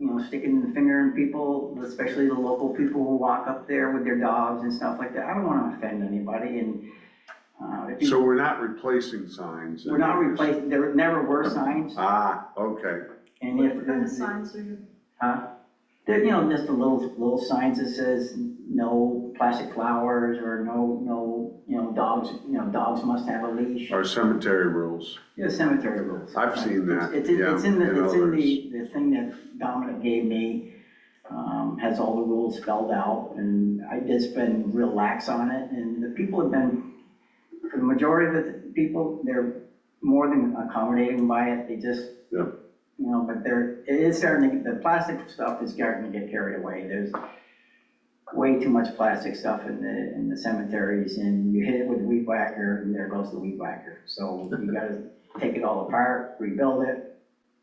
um, sticking the finger in people, especially the local people who walk up there with their dogs and stuff like that. I don't wanna offend anybody and, uh, if So you, we're not replacing signs? we're not replacing, there never were signs Ah, okay. and if. What kind the- of signs are you, Huh? There, you know, just the little, little signs that says no plastic flowers or no, no, you know, dogs, you know, dogs must have a leash. Our cemetery rules. Yeah, cemetery rules. I've seen that, It's, it's- it's in yeah, the, and it's in others. the, the thing that Dominic gave me, um, has all the rules spelled out, and I just been real lax on it, and the people have been, for the majority of the people, they're more than accommodating by it, they just, Yeah. you know, but they're, it is starting to, get- the plastic stuff is starting to get carried away, there's way too much plastic stuff in the, in the cemeteries, and you hit it with a weed whacker, and there goes the weed whacker, so you gotta take it all apart, rebuild it.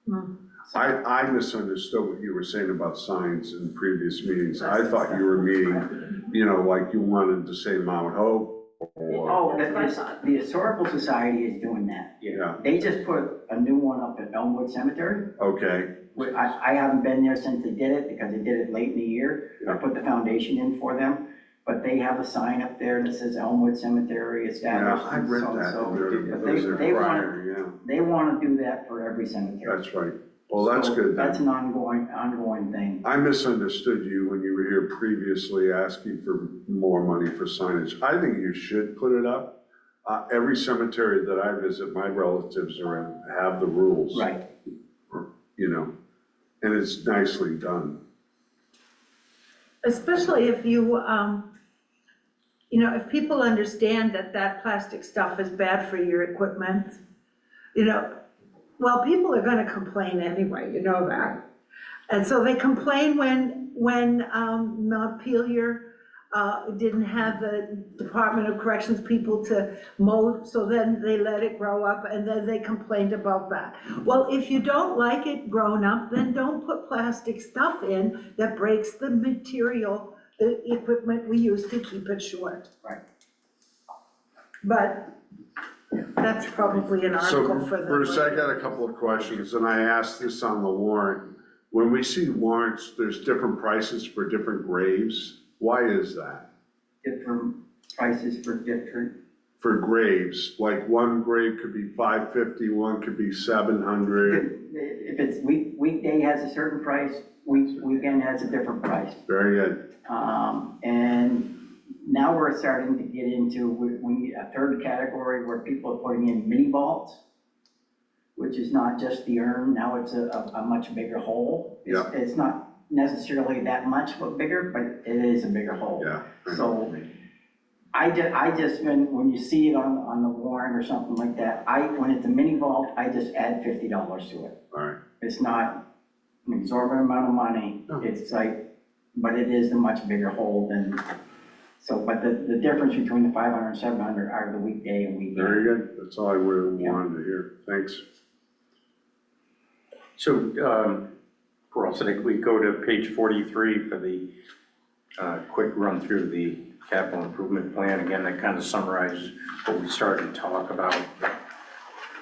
Hmm. So- I, I misunderstood what you were saying about signs in previous meetings. I thought you were meaning, you know, like you wanted to say Mount Hope or, Oh, That's what I the, thought. the historical society is doing that. yeah, They just put a new one up at Elmwood Cemetery. okay, Wh- I, I haven't been there since they did it because they did it late in the year. I Yeah. put the foundation in for them, but they have a sign up there that says Elmwood Cemetery yeah, established. I read that. so-and-so. in there. But It was they, there they want, prior, they want to do that for every cemetery. yeah, that's right. Well, that's So good then. That's an ongoing, ongoing thing. I misunderstood you when you were here previously asking for more money for signage. I think you should put it up. Uh, every cemetery that I visit, my relatives are in, have the rules. Right. You know, and it's nicely done. especially if you, um, you know, if people understand that that plastic stuff is bad for your equipment, you know, well, people are gonna complain anyway, you know that. And so they complain when, when, um, Montpelier, uh, didn't have the Department of Corrections people to mow, so then they let it grow up, and then they complained about that. Well, if you don't like it grown up, then don't put plastic stuff in that breaks the material, the equipment we use to keep it short. Right. But that's probably an So article for the. Bruce, I got a couple of questions and I asked this on the warrant. When we see warrants, there's different prices for different graves. Why is that? Different prices for different For graves, like one grave could be five fifty, one could be seven hundred. If it's week, weekday has a certain price, week, weekend has a different price. Very good. Um, and now we're starting to get into, we, we need a third category where people are putting in mini vaults, which is not just the urn, now it's a, a, a much bigger hole. It's- It's not necessarily that much, but bigger, but it is a bigger hole. Yeah. So I ju, I just, when, when you see it on, on the warrant or something like that, I, when it's a mini vault, I just add fifty dollars to it. All right, It's not an exorbitant amount of money, No. it's like, but it is a much bigger hole than, so, but the, the difference between the five hundred and seven hundred are the weekday and very weekend. good. That's all I really Yeah. wanted to hear. Thanks. So, um, for all sake, we go to page 43 for the uh, quick run through the capital improvement plan. Again, that kind of summarizes what we started to talk about.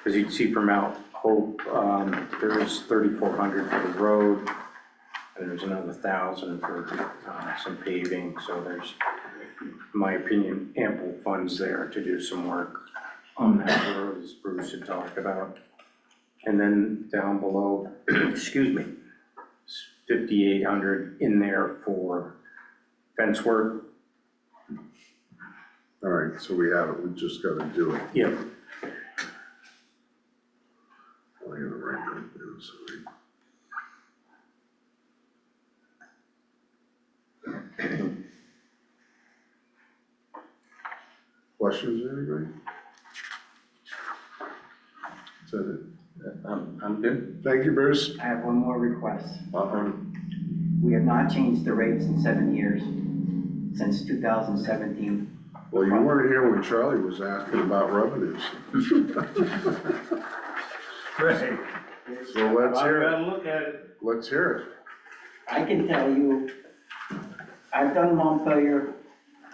As you can see from Mount Hope, um, there is 3,400 for the road, and there's another 1,000 for uh, some paving. So there's, in my opinion, ample funds there to do some work on that road, as Bruce had talked about. And then down below, excuse me, fifty-eight hundred in there for fence work. All right, so we have it. We just gotta do it. Yep. I gotta write that down, sorry. Questions, anybody? Is that I'm, I'm good. it? Thank you, Bruce. I have one more request. Uh-huh. We have not changed the rates in seven years, since two thousand seventeen. Well, you weren't here when Charlie was asking about revenues. Right. So let's hear I've it. got to look at it. Let's hear it. I can tell you, I've done Montpelier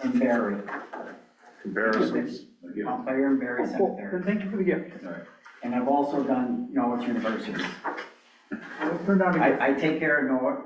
and Barry, Comparisons. Montpelier and Barry Cemetery, Oh, Thank you for the gift. and I've also done Norwich University. It turned out I, I take care of Norwich,